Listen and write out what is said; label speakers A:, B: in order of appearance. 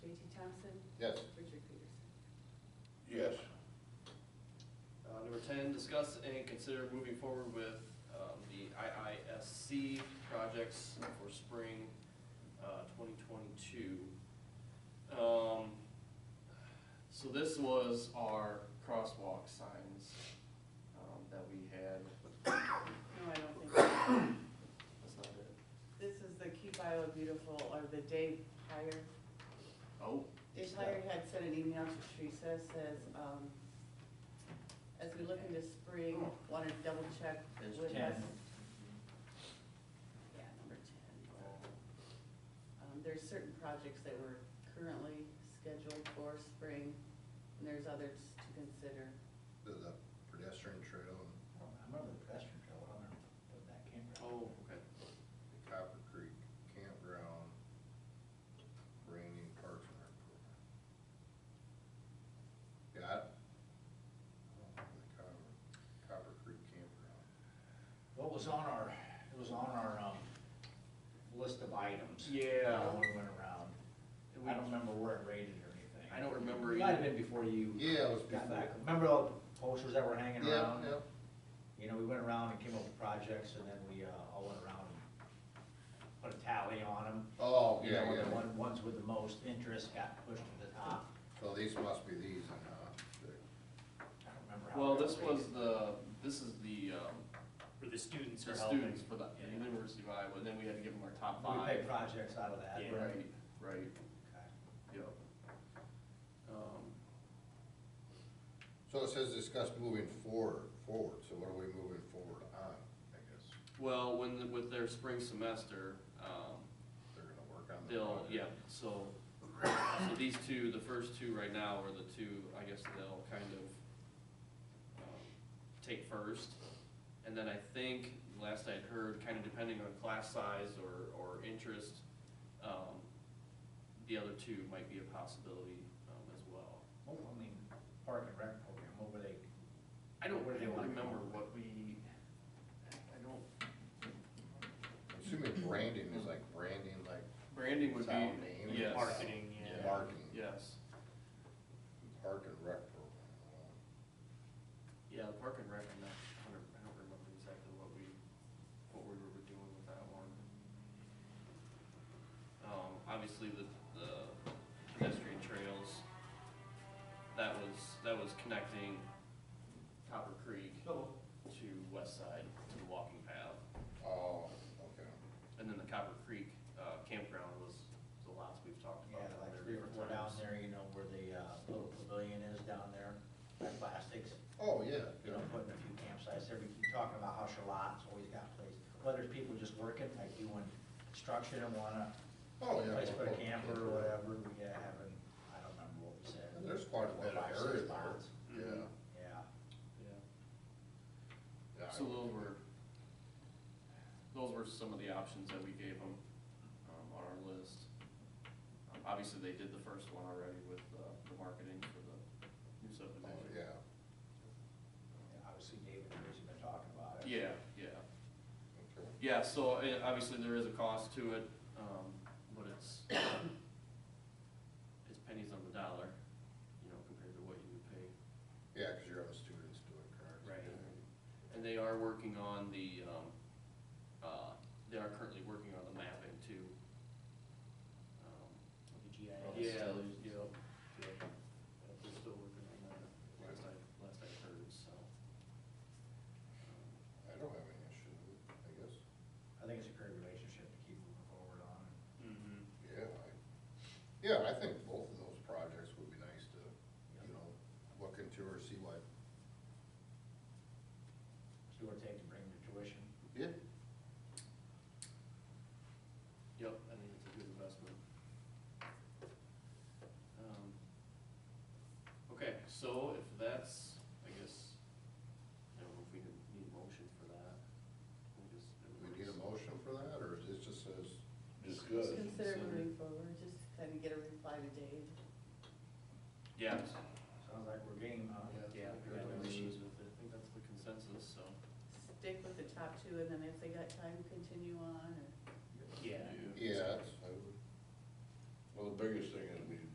A: Yes.
B: Richard Peterson.
A: Yes.
C: Uh, Number 10, discuss and consider moving forward with um, the IISC projects for spring uh, 2022. Um, So this was our crosswalk signs um, that we had.
B: No, I don't think, so.
C: That's not it.
B: this is the Keep Iowa Beautiful, or the Dave Hire.
C: Oh.
B: Dave Hire had sent an email to Teresa, says, um, as we look into spring, want to double check
D: There's
B: with us.
D: 10.
B: Yeah, number ten. Um, There's certain projects that we're currently scheduled for spring, and there's others to consider.
A: The- The pedestrian trail and
D: I remember the press control, I don't know what that came from.
C: Oh, okay.
A: the Copper Creek Campground, Rainy Parks and Rec program. Yeah, I I don't know the Copper, Copper Creek Campground.
D: What was on our, it was on our, um, list of items.
C: Yeah.
D: When we went around.
C: And we-
D: I don't remember where it rated or anything.
C: I don't remember
D: It Might have
C: either.
D: been before you.
A: Yeah, it was
D: got
A: before.
D: back. Remember all the posters that were hanging around?
A: Yeah,
D: You know, we went around and came up with projects and then we, uh, all went around and put a tally on them.
A: Oh,
D: You know,
A: yeah,
D: with the
A: yeah.
D: one- ones with the most interest got pushed to the top.
A: So these must be these, and, uh,
D: I don't remember how.
C: Well,
D: they were
C: this was
D: rated.
C: the, this is the um,
E: Where the students
C: the
E: are helping.
C: students for the the
E: Yeah.
C: University of Iowa, and then we had to give them our top
D: We
C: five.
D: picked projects out of that.
E: Yeah.
C: Right, right,
D: Okay.
C: yep. Um,
A: so it says discuss moving forward, forward, so what are we moving forward on, I guess?
C: Well, when, the- with their spring semester, um,
A: They're gonna work on the.
C: they'll,
A: project.
C: yeah, so, so these two, the first two right now are the two, I guess they'll kind of um, take first. And then I think, last I'd heard, kind of depending on class size or, or interest, um, the other two might be a possibility um, as well.
D: Well, I mean, park and rec program, what were they?
C: I don't
D: What do they
C: really
D: wanna come
C: remember what
D: up with?
C: we, I don't,
A: I'm Assuming branding is like branding, like
C: branding would
A: Sound name.
C: be, yes.
E: Marketing, yeah.
A: Marketing.
C: Yes.
A: park and rec program.
C: Yeah, the park and rec, I'm not, I don't I don't remember exactly what we, what we were doing with that one. Um, obviously the, the pedestrian trails, that was, that was connecting Copper Creek to West Side, to the walking path.
A: Oh, okay.
C: And then the Copper Creek uh, campground was the last we've talked about.
D: Yeah, like
C: there
D: three or
C: different
D: four down
C: times.
D: there, you know, where the uh, little pavilion is down there, that plastics,
A: Oh, yeah,
D: you know,
A: yeah.
D: putting a few campsites there. We keep talking about how Charlotte's always got places, whether it's people just working, like doing construction and wanna
A: Oh, yeah.
D: place for a camper or whatever, we gotta have, an- I don't remember what we said.
A: There's quite a bit of
D: Five, six
A: area
D: spots.
A: there.
C: Mhm.
D: Yeah,
C: Yeah.
A: Yeah.
C: So those were, those were some of the options that we gave them um, on our list. Um, Obviously, they did the first one already with uh, the marketing for the new
A: Oh,
C: subdivision.
A: yeah.
D: And obviously David and Tracy been talking about it.
C: Yeah, yeah.
A: Okay.
C: Yeah, so eh, obviously, there is a cost to it, um, but it's, it's pennies on the dollar, you know, compared to what you would pay
A: Yeah, because you're having students doing cars.
C: Right. And they are working on the, um, uh, they are currently working on the mapping too. Um,
D: With the GIS.
C: Yeah, there's, yeah, yeah, they're still working on that, last I, last I heard, so. Um,
A: I don't have any issue with it,
D: I think it's a great relationship to keep moving forward on.
C: Mm-hmm.
A: I guess. Yeah, I, yeah, I think both of those projects would be nice to, you know, look into or see what.
D: See what it takes to bring them to tuition.
A: Yeah.
C: Yep, I think it's a good investment. Um, Okay, so if that's, I guess, I don't know if we can need a motion for that. We just-
A: Do we need a motion for that, or is it just says?
B: Just
A: Discuss.
B: Consider moving forward, just kind of get a reply to Dave.
C: Yeah.
D: Sounds like we're game, huh?
C: Yeah, we had no issues with it, I think that's the consensus, so.
B: Stick with the top two, and then if they got time, continue on, or
E: Yeah.
A: Yeah, that's, I would.
F: Well, the biggest thing